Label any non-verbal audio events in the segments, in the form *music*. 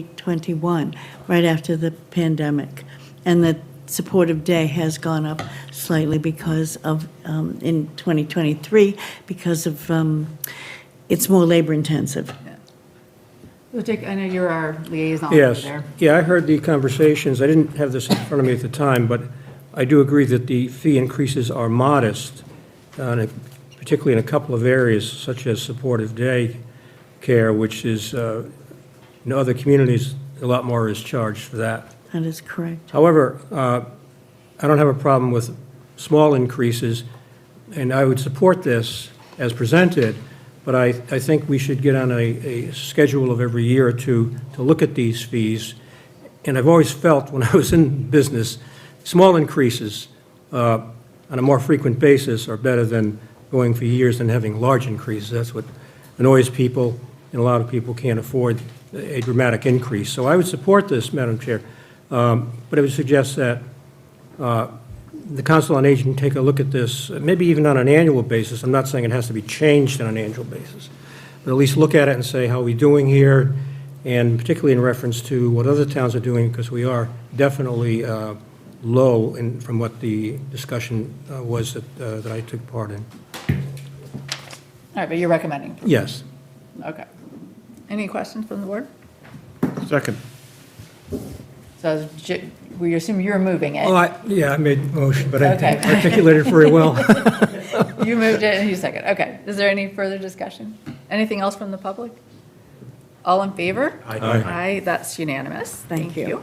2021, right after the pandemic. And the supportive day has gone up slightly because of, um, in 2023, because of, um, it's more labor intensive. Well, Dick, I know you're our liaison over Yes. there. Yeah, I heard the conversations. I didn't have this in front of me at the time, but I do agree that the fee increases are modest, uh, and it- particularly in a couple of areas such as supportive day care, which is, uh, in other communities, a lot more is charged for that. That is correct. However, uh, I don't have a problem with small increases, and I would support this as presented, but I, I think we should get on a, a schedule of every year or two to look at these fees. And I've always felt, when *laughs* I was in business, small increases uh, on a more frequent basis are better than going for years and having large increases. That's what annoys people, and a lot of people can't afford a dramatic increase. So I would support this, Madam Chair, Um, but I would suggest that uh, the Council on Aging take a look at this, maybe even on an annual basis. I'm not saying it has to be changed on an annual basis, but at least look at it and say, how are we doing here? And particularly in reference to what other towns are doing, because we are definitely uh, low in, from what the discussion uh, was that, uh, that I took part in. All right, but you're recommending, Yes. okay. Any questions from the board? Second. So J- we assume you're moving Well, it. Oh, I, yeah, I made a motion, but I didn't Uh, Okay. articulate it very well. You moved it and you second, okay. Is there any further discussion? Anything else from the public? All in favor? Aye. Aye. Aye, that's unanimous. Thank you.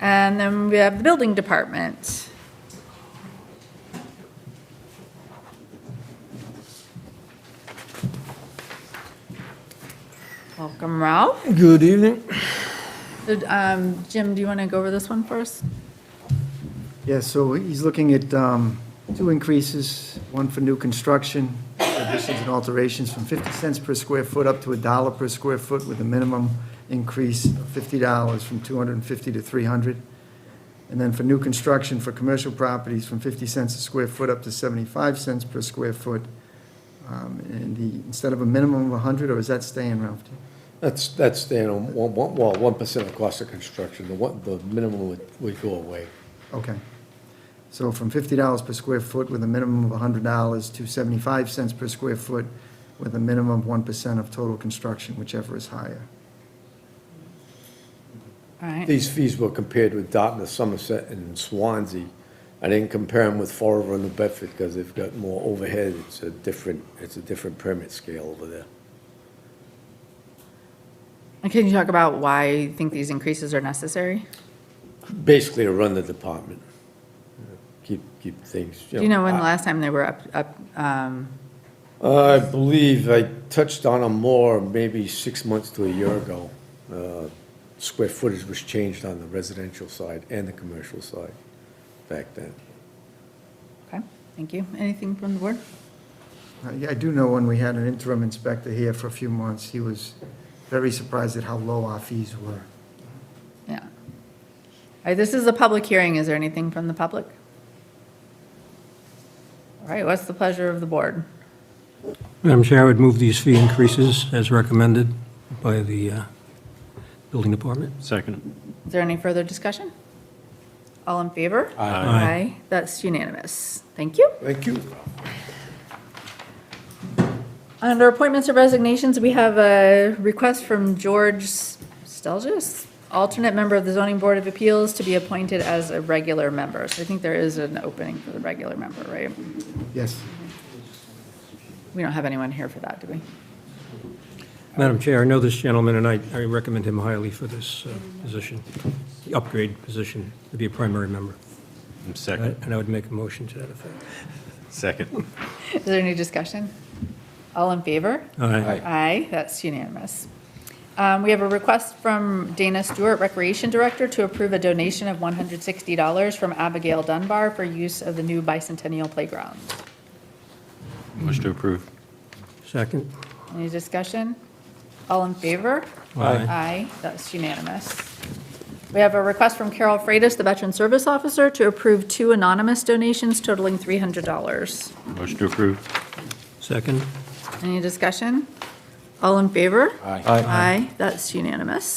And then we have the building department. Welcome, Ralph. *laughs* Good evening. Did, um, Jim, do you want to go over this one first? Yeah, so he's looking at um, two increases, one for new construction, additions and alterations from 50 cents per square foot up to a dollar per square foot with a minimum increase of $50 from 250 to 300. And then for new construction for commercial properties from 50 cents a square foot up to 75 cents per square foot. Um, And the, instead of a minimum of 100, or is that staying, Ralph? That's, that's, you know, one, one- well, one percent of cost of construction, the one, the minimum would, would go away. Okay. So from fifty dollars per square foot with a minimum of hundred dollars to seventy-five cents per square foot with a minimum of one percent of total construction, whichever is higher. All right, These fees were compared with Dartmouth, Somerset, and Swansea. I didn't compare them with Fall River and New Bedford, because they've got more overhead, it's a different, it's a different permit scale over there. and can you talk about why you think these increases are necessary? Basically to run the department. Keep, keep things, you know. Do you know when I- the last time they were up, up, um, Uh, I believe I touched on them more, maybe six months to a year ago. Uh, Square footage was changed on the residential side and the commercial side back then. okay, thank you. Anything from the board? Uh, yeah, I do know when we had an interim inspector here for a few months, he was very surprised at how low our fees were. Yeah. All right, this is a public hearing. Is there anything from the public? All right, what's the pleasure of the board? Madam Chair, I would move these fee increases as recommended by the uh, Building Department. Second. Is there any further discussion? All in favor? Aye. That's unanimous. Thank you. Thank you. Under appointments or resignations, we have a request from George Stelgis, alternate member of the Zoning Board of Appeals, to be appointed as a regular member. So I think there is an opening for the regular member, right? Yes, We don't have anyone here for that, do we? Madam Chair, I know this gentleman, and I I recommend him highly for this uh, position, the upgrade position, to be a primary member. Second. And I would make a motion to that effect. Second. Is there any discussion? All in favor? Aye. Aye, that's unanimous. Um, We have a request from Dana Stewart, Recreation Director, to approve a donation of $160 from Abigail Dunbar for use of the new bicentennial playground. Motion to approve. Second? Any discussion? All in favor? Aye. Aye, that's unanimous. We have a request from Carol Freitas, the Veteran Service Officer, to approve two anonymous donations totaling $300. Motion to approve. Second? Any discussion? All in favor? Aye. Aye, that's unanimous.